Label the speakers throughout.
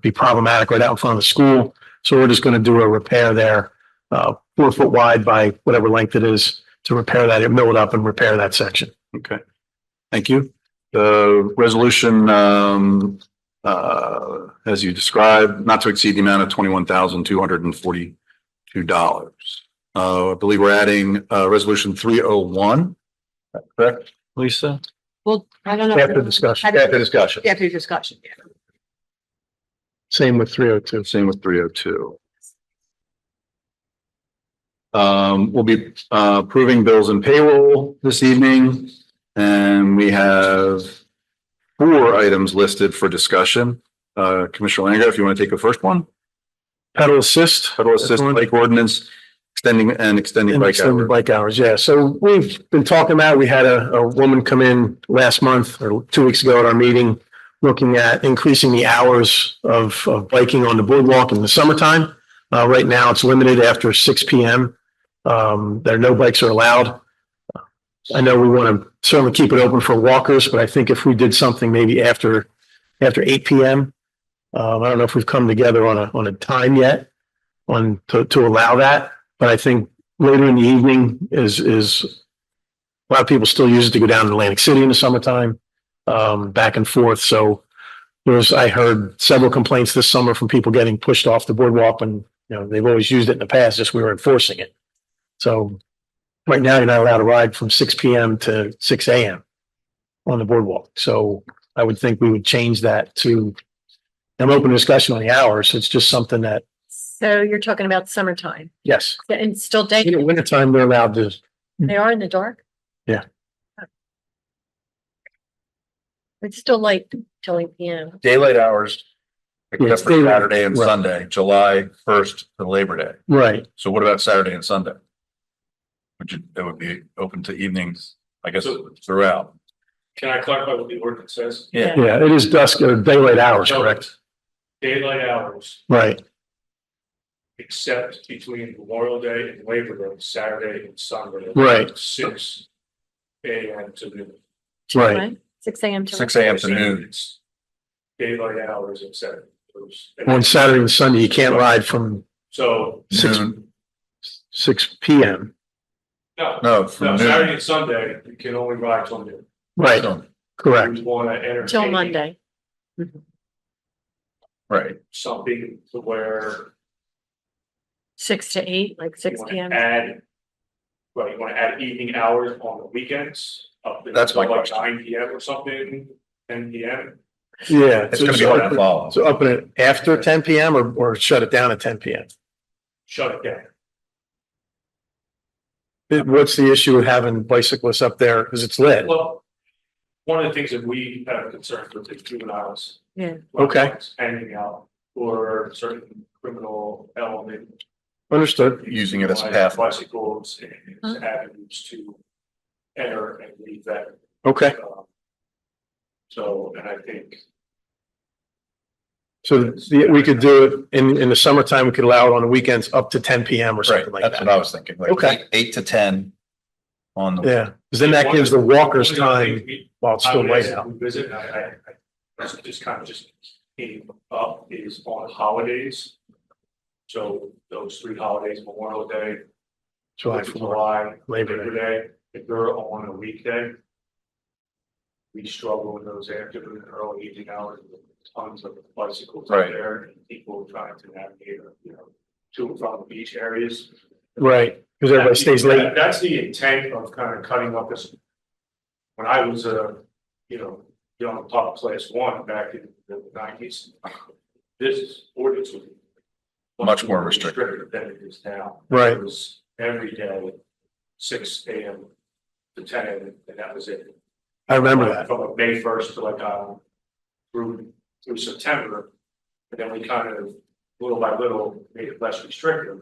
Speaker 1: be problematic right out in front of the school. So we're just going to do a repair there, uh, four foot wide by whatever length it is to repair that, mill it up and repair that section.
Speaker 2: Okay. Thank you. The resolution, um, uh, as you described, not to exceed the amount of twenty-one thousand, two hundred and forty-two dollars. Uh, I believe we're adding, uh, resolution three oh one. Correct, Lisa?
Speaker 3: Well, I don't know.
Speaker 1: After discussion,
Speaker 2: After discussion.
Speaker 3: After discussion, yeah.
Speaker 1: same with three oh two.
Speaker 2: Same with three oh two. Um, we'll be uh, approving bills and payroll this evening, and we have four items listed for discussion. Uh, Commissioner Langria, if you want to take the first one,
Speaker 1: Pedal assist.
Speaker 2: federal assist
Speaker 1: Excellent.
Speaker 2: bike ordinance, extending and extending
Speaker 1: And
Speaker 2: bike
Speaker 1: extended
Speaker 2: hours.
Speaker 1: bike hours, yeah. So we've been talking about, we had a, a woman come in last month or two weeks ago at our meeting, looking at increasing the hours of, of biking on the boardwalk in the summertime. Uh, right now it's limited after six P M. Um, there, no bikes are allowed. I know we want to certainly keep it open for walkers, but I think if we did something maybe after, after eight P M. Um, I don't know if we've come together on a, on a time yet on, to, to allow that, but I think later in the evening is, is a lot of people still use it to go down to Atlantic City in the summertime, um, back and forth. So there's, I heard several complaints this summer from people getting pushed off the boardwalk and, you know, they've always used it in the past, just we were enforcing it. So right now you're not allowed to ride from six P M to six A M on the boardwalk. So I would think we would change that to, I'm open to discussion on the hours. It's just something that,
Speaker 3: So you're talking about summertime
Speaker 1: yes,
Speaker 3: and it's still
Speaker 1: in
Speaker 3: day,
Speaker 1: the wintertime, they're allowed to
Speaker 3: they are in the dark?
Speaker 1: Yeah.
Speaker 3: It's still light till eight PM.
Speaker 2: Daylight hours,
Speaker 1: Yeah,
Speaker 2: except
Speaker 1: it's
Speaker 2: for
Speaker 1: daylight.
Speaker 2: Saturday and
Speaker 1: Right.
Speaker 2: Sunday, July first to Labor Day.
Speaker 1: Right,
Speaker 2: So what about Saturday and Sunday? Would you, that would be open to evenings, I guess, throughout.
Speaker 4: Can I clarify what the ordinance says?
Speaker 2: Yeah.
Speaker 1: yeah, it is dusk, uh, daylight hours,
Speaker 4: Oh.
Speaker 1: correct?
Speaker 4: Daylight hours,
Speaker 1: Right,
Speaker 4: except between Memorial Day and Labor Day, Saturday and Sunday.
Speaker 1: Right.
Speaker 4: Six AM to noon.
Speaker 1: right,
Speaker 3: Six AM till.
Speaker 2: Six AM to noon.
Speaker 4: It's Daylight hours except. those-
Speaker 1: on Saturday and Sunday, you can't ride from
Speaker 4: So,
Speaker 1: Six-
Speaker 2: Noon,
Speaker 1: six P M.
Speaker 4: no,
Speaker 2: no,
Speaker 4: no,
Speaker 2: from
Speaker 4: Saturday
Speaker 2: noon.
Speaker 4: and Sunday, you can only ride till noon.
Speaker 1: Right, correct,
Speaker 4: We want to entertain.
Speaker 3: Till Monday.
Speaker 2: Right,
Speaker 4: Something to where.
Speaker 3: Six to eight, like
Speaker 4: you
Speaker 3: six
Speaker 4: wanna
Speaker 3: PM.
Speaker 4: Add. Right, you want to add evening hours on the weekends. up to-
Speaker 2: That's my
Speaker 4: like
Speaker 2: question.
Speaker 4: Nine PM or something, ten PM.
Speaker 1: yeah.
Speaker 2: it's gonna be hard to follow.
Speaker 1: So open it after ten P M or, or shut it down at ten P M?
Speaker 4: shut it down.
Speaker 1: What's the issue of having bicyclists up there? Cause it's lit.
Speaker 4: Well, one of the things that we have concerns with is juveniles.
Speaker 3: Yeah.
Speaker 1: Okay.
Speaker 4: Hanging out or certain criminal element.
Speaker 1: Understood.
Speaker 2: Using it as a
Speaker 4: like
Speaker 2: path.
Speaker 4: Bicycles
Speaker 3: Huh.
Speaker 4: and avenues to enter and leave that.
Speaker 1: Okay,
Speaker 4: um, So, and I think,
Speaker 1: so the, we could do it in, in the summertime, we could allow it on the weekends up to ten P M or
Speaker 2: right,
Speaker 1: something like
Speaker 2: that's what I
Speaker 1: that.
Speaker 2: was thinking, like
Speaker 1: Okay.
Speaker 2: eight- eight to ten on the.
Speaker 1: Yeah, cause then that gives the walkers time while it's
Speaker 4: I
Speaker 1: still
Speaker 4: would
Speaker 1: light
Speaker 4: ask
Speaker 1: out.
Speaker 4: if we visit, and I, I, I, that's just kind of just came up is on holidays. So those three holidays, Memorial Day,
Speaker 1: July
Speaker 4: Fourth of
Speaker 1: four,
Speaker 4: July,
Speaker 1: Labor
Speaker 4: Labor
Speaker 1: Day.
Speaker 4: Day, if they're on a weekday. We struggle with those after the early evening hours, with tons of bicycles out
Speaker 2: Right.
Speaker 4: there, and people trying to navigate, you know, to and from the beach areas.
Speaker 1: Right, cause everybody stays late.
Speaker 4: That- That's the intent of kind of cutting up this. When I was a, you know, young pop class one back in the nineties, this ordinance was.
Speaker 2: Much more restrictive.
Speaker 4: Than it is now.
Speaker 1: Right.
Speaker 4: It was every day, six AM to ten AM, and that was it.
Speaker 1: I remember that.
Speaker 4: From like May first to like, um, through, through September. And then we kind of, little by little, made it less restrictive.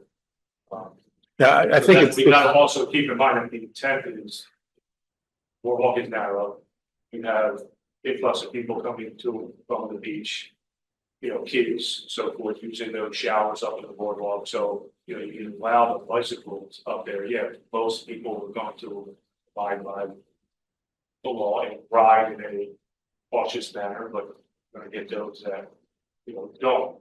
Speaker 4: Um,
Speaker 1: Yeah, I, I think
Speaker 4: but
Speaker 1: it's,
Speaker 4: We gotta also keep in mind that the intent is. We're walking narrow. You have influx of people coming to and from the beach. You know, kids, so forth, using those showers up in the boardwalk, so, you know, you can allow the bicycles up there, yeah, most people are going to abide by. The law and ride in a cautious manner, but we're gonna get those that. you know, don't